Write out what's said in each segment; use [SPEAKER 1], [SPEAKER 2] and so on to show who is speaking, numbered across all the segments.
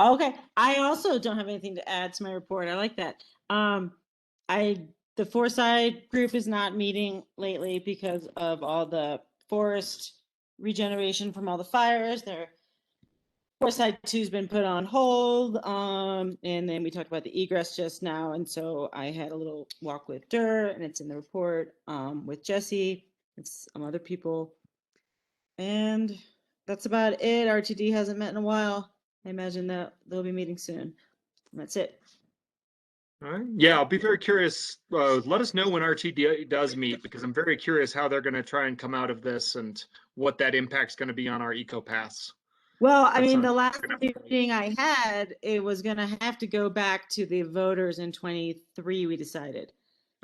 [SPEAKER 1] Okay, I also don't have anything to add to my report. I like that. Um, I, the Foresight group is not meeting lately because of all the forest regeneration from all the fires. Their Foresight two's been put on hold. Um, and then we talked about the egress just now, and so I had a little walk with Dur, and it's in the report, um, with Jesse, and some other people. And that's about it. RTD hasn't met in a while. I imagine that they'll be meeting soon. And That's it.
[SPEAKER 2] All right. Yeah, I'll be very curious. Uh, let us know when RTD does meet because I'm very curious how they're going to try and come out of this and what that impact's going to be on our eco paths.
[SPEAKER 1] Well, I
[SPEAKER 2] That
[SPEAKER 1] mean, the
[SPEAKER 2] sounds
[SPEAKER 1] last
[SPEAKER 2] good.
[SPEAKER 1] meeting I had, it was gonna have to go back to the voters in twenty-three, we decided.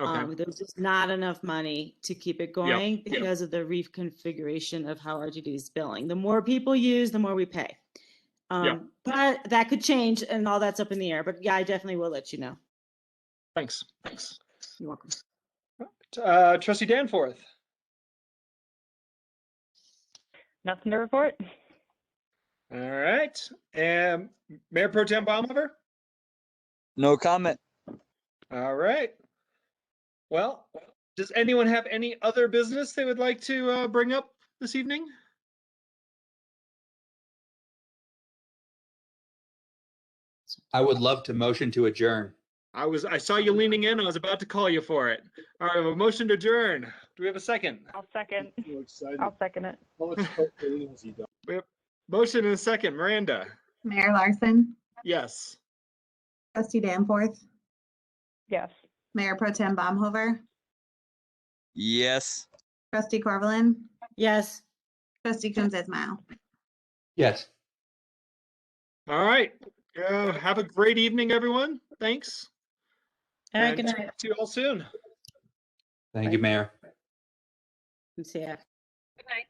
[SPEAKER 2] Okay.
[SPEAKER 1] Um, there was just not enough money to keep it going because of the reconfiguration of how RTD is billing. The more people use, the more we pay. Um, but that could change and all that's up in the air, but yeah, I definitely will let you know.
[SPEAKER 2] Thanks. Thanks.
[SPEAKER 1] You're welcome.
[SPEAKER 3] Uh, Trustee Danforth,
[SPEAKER 4] Nothing to report.
[SPEAKER 3] all right. And Mayor Pro Tem Baumhofer,
[SPEAKER 5] No comment.
[SPEAKER 3] all right. Well, does anyone have any other business they would like to uh, bring up this evening?
[SPEAKER 5] I would love to motion to adjourn.
[SPEAKER 2] I was, I saw you leaning in. I was about to call you for it. All right, I have a motion to adjourn.
[SPEAKER 3] Do we have a second?
[SPEAKER 4] I'll second.
[SPEAKER 6] so excited.
[SPEAKER 4] I'll second it.
[SPEAKER 6] How much hope there is he does.
[SPEAKER 2] Motion and a second. Miranda.
[SPEAKER 7] Mayor Larson,
[SPEAKER 2] Yes.
[SPEAKER 7] trustee Danforth,
[SPEAKER 4] Yes.
[SPEAKER 7] Mayor Pro Tem Baumhover,
[SPEAKER 5] Yes.
[SPEAKER 7] trustee Corvallin,
[SPEAKER 1] Yes.
[SPEAKER 7] trustee Coombs Ismail.
[SPEAKER 5] Yes.
[SPEAKER 2] All right. Uh, have a great evening, everyone. Thanks.
[SPEAKER 1] All right, good
[SPEAKER 2] And
[SPEAKER 1] night.
[SPEAKER 2] See you all soon.
[SPEAKER 5] Thank you, Mayor.
[SPEAKER 1] See ya.
[SPEAKER 8] Good night.